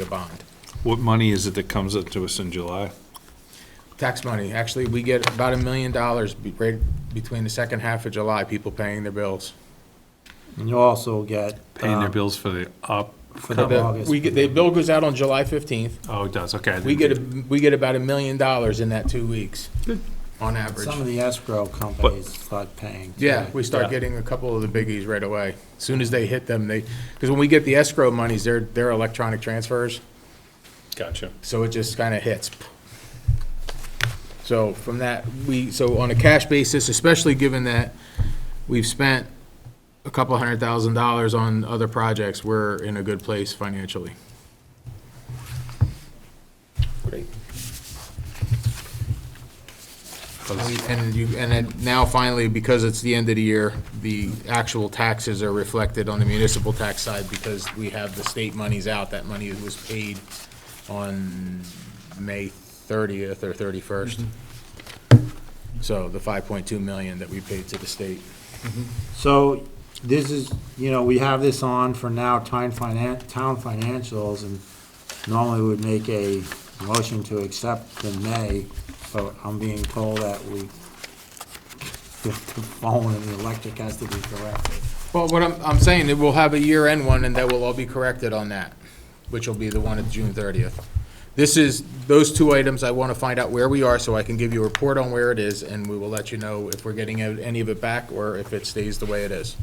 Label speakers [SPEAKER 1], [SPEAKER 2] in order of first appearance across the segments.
[SPEAKER 1] a bond,
[SPEAKER 2] What money is it that comes up to us in July?
[SPEAKER 1] tax money. Actually, we get about a million dollars be- right between the second half of July, people paying their bills.
[SPEAKER 3] And you also get.
[SPEAKER 2] Paying their
[SPEAKER 4] Uh,
[SPEAKER 3] um,
[SPEAKER 2] bills for the up,
[SPEAKER 3] For the
[SPEAKER 1] The-
[SPEAKER 3] August.
[SPEAKER 1] We get, the bill goes out on July 15th.
[SPEAKER 2] oh, it does, okay. I
[SPEAKER 1] We
[SPEAKER 2] didn't-
[SPEAKER 1] get, a- we get about a million dollars in that two weeks, on
[SPEAKER 3] Some
[SPEAKER 1] average.
[SPEAKER 3] of the escrow companies start paying. too.
[SPEAKER 1] Yeah, we start
[SPEAKER 2] Yeah.
[SPEAKER 1] getting a couple of the biggies right away. As Soon as they hit them, they, because when we get the escrow monies, they're, they're electronic transfers,
[SPEAKER 2] Gotcha.
[SPEAKER 1] so it just kind of hits. So from that, we, so on a cash basis, especially given that we've spent a couple hundred thousand dollars on other projects, we're in a good place financially. Great. And you, and then now finally, because it's the end of the year, the actual taxes are reflected on the municipal tax side because we have the state monies out. That money was paid on May thirtieth or thirty-first. Mm-hmm. So the five point two million that we paid to the state.
[SPEAKER 3] So this is, you know, we have this on for now, town finan, town financials, and normally we'd make a motion to accept in May, but I'm being told that we, the phone and the electric has to be corrected.
[SPEAKER 1] Well, what I'm, I'm saying, that we'll have a year-end one, and that will all be corrected on that, which will be the one at June thirtieth. This is, those two items, I want to find out where we are, so I can give you a report on where it is, and we will let you know if we're getting any of it back, or if it stays the way it is.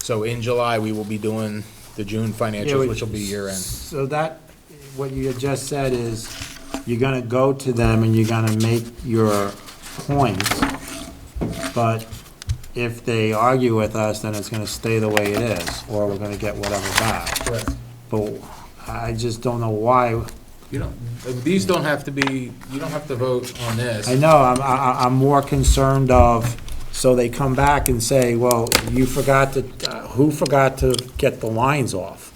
[SPEAKER 1] So in July, we will be doing the June
[SPEAKER 3] Yeah,
[SPEAKER 1] financials,
[SPEAKER 3] we-
[SPEAKER 1] which will be year-end.
[SPEAKER 3] So that, what you had just said is, you're gonna go to them and you're gonna make your points, but if they argue with us, then it's gonna stay the way it is, or we're gonna get whatever back.
[SPEAKER 1] Correct.
[SPEAKER 3] But I just don't know why,
[SPEAKER 1] You don't, these don't have to be, you don't have to vote on this.
[SPEAKER 3] I know, I'm, I, I- I'm more concerned of, so they come back and say, well, you forgot to, uh, who forgot to get the lines off?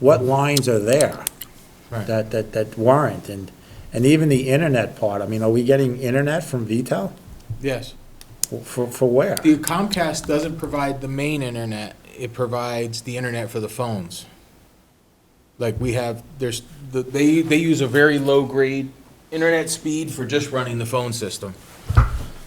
[SPEAKER 3] What lines are there?
[SPEAKER 1] Right.
[SPEAKER 3] That, that, that weren't, and, and even the internet part, I mean, are we getting internet from VTEL?
[SPEAKER 1] Yes.
[SPEAKER 3] For, for where?
[SPEAKER 1] The Comcast doesn't provide the main internet, it provides the internet for the phones. Like, we have, there's, the- they, they use a very low-grade internet speed for just running the phone system.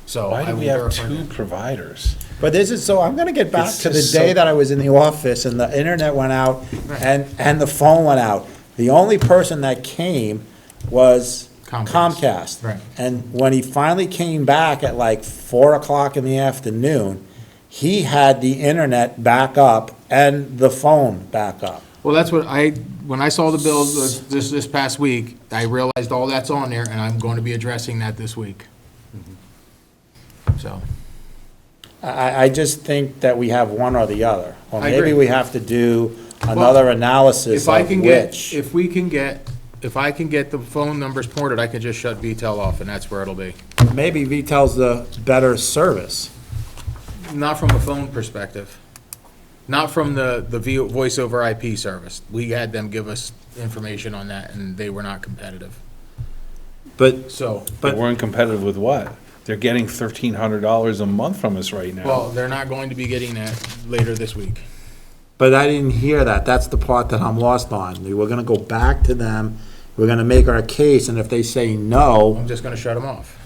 [SPEAKER 1] So.
[SPEAKER 4] Why
[SPEAKER 1] I
[SPEAKER 4] do we
[SPEAKER 1] will
[SPEAKER 4] have
[SPEAKER 1] verify
[SPEAKER 4] two
[SPEAKER 1] that.
[SPEAKER 4] providers?
[SPEAKER 3] But this is, so I'm gonna get back
[SPEAKER 4] It's
[SPEAKER 3] to the
[SPEAKER 4] just
[SPEAKER 3] day
[SPEAKER 4] so-
[SPEAKER 3] that I was in the office and the internet went out and, and the phone went out. The only person that came was
[SPEAKER 1] Comcast.
[SPEAKER 3] Comcast.
[SPEAKER 1] Right.
[SPEAKER 3] And when he finally came back at like four o'clock in the afternoon, he had the internet back up and the phone back up.
[SPEAKER 1] Well, that's what I, when I saw the bill this, this past week, I realized all that's on there, and I'm going to be addressing that this week.
[SPEAKER 4] Mm-hmm.
[SPEAKER 1] So,
[SPEAKER 3] I, I just think that we have one or the other. Or
[SPEAKER 1] I agree.
[SPEAKER 3] maybe we have to do another analysis
[SPEAKER 1] if I
[SPEAKER 3] of
[SPEAKER 1] can get,
[SPEAKER 3] which.
[SPEAKER 1] if we can get, if I can get the phone numbers ported, I can just shut VTEL off, and that's where it'll be.
[SPEAKER 3] Maybe VTEL's the better service.
[SPEAKER 1] Not from a phone perspective. Not from the, the vo- voice over IP service. We had them give us information on that, and they were not competitive.
[SPEAKER 3] But,
[SPEAKER 1] So,
[SPEAKER 4] They
[SPEAKER 3] But-
[SPEAKER 4] weren't competitive with what? They're getting thirteen hundred dollars a month from us right now.
[SPEAKER 1] well, they're not going to be getting that later this week.
[SPEAKER 3] but I didn't hear that. That's the part that I'm lost on. We We're gonna go back to them, we're gonna make our case, and if they say no,
[SPEAKER 1] I'm just gonna shut them off.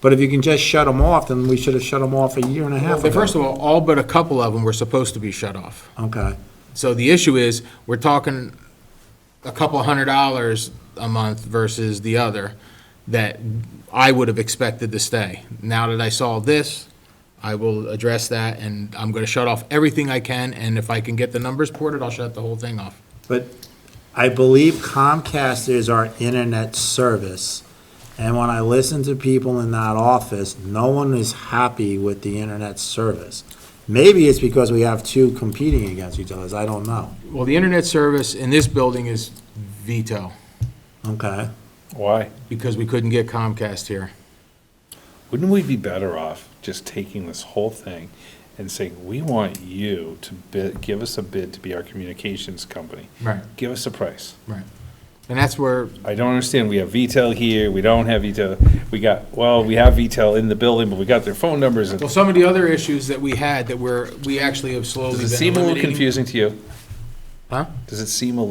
[SPEAKER 3] but if you can just shut them off, then we should have shut them off a year and a half
[SPEAKER 1] But first
[SPEAKER 3] ago.
[SPEAKER 1] of all, all but a couple of them were supposed to be shut off.
[SPEAKER 3] Okay,
[SPEAKER 1] So the issue is, we're talking a couple hundred dollars a month versus the other that I would have expected to stay. Now that I saw this, I will address that, and I'm gonna shut off everything I can, and if I can get the numbers ported, I'll shut the whole thing off.
[SPEAKER 3] but I believe Comcast is our internet service. And when I listen to people in that office, no one is happy with the internet service. Maybe it's because we have two competing against each other, I don't know.
[SPEAKER 1] Well, the internet service in this building is veto,
[SPEAKER 3] Okay,
[SPEAKER 4] Why?
[SPEAKER 1] because we couldn't get Comcast here.
[SPEAKER 4] Wouldn't we be better off just taking this whole thing and saying, we want you to bid, give us a bid to be our communications company?
[SPEAKER 1] Right.
[SPEAKER 4] Give us a price.
[SPEAKER 1] Right. And that's where,
[SPEAKER 4] I don't understand. We have VTEL here, we don't have VTEL. We got, well, we have VTEL in the building, but we got their phone numbers. and-
[SPEAKER 1] well, some of the other issues that we had that we're, we actually have slowly
[SPEAKER 4] Does
[SPEAKER 1] been
[SPEAKER 4] it seem a little
[SPEAKER 1] eliminating-
[SPEAKER 4] confusing to you?
[SPEAKER 1] Huh?
[SPEAKER 4] Does it seem a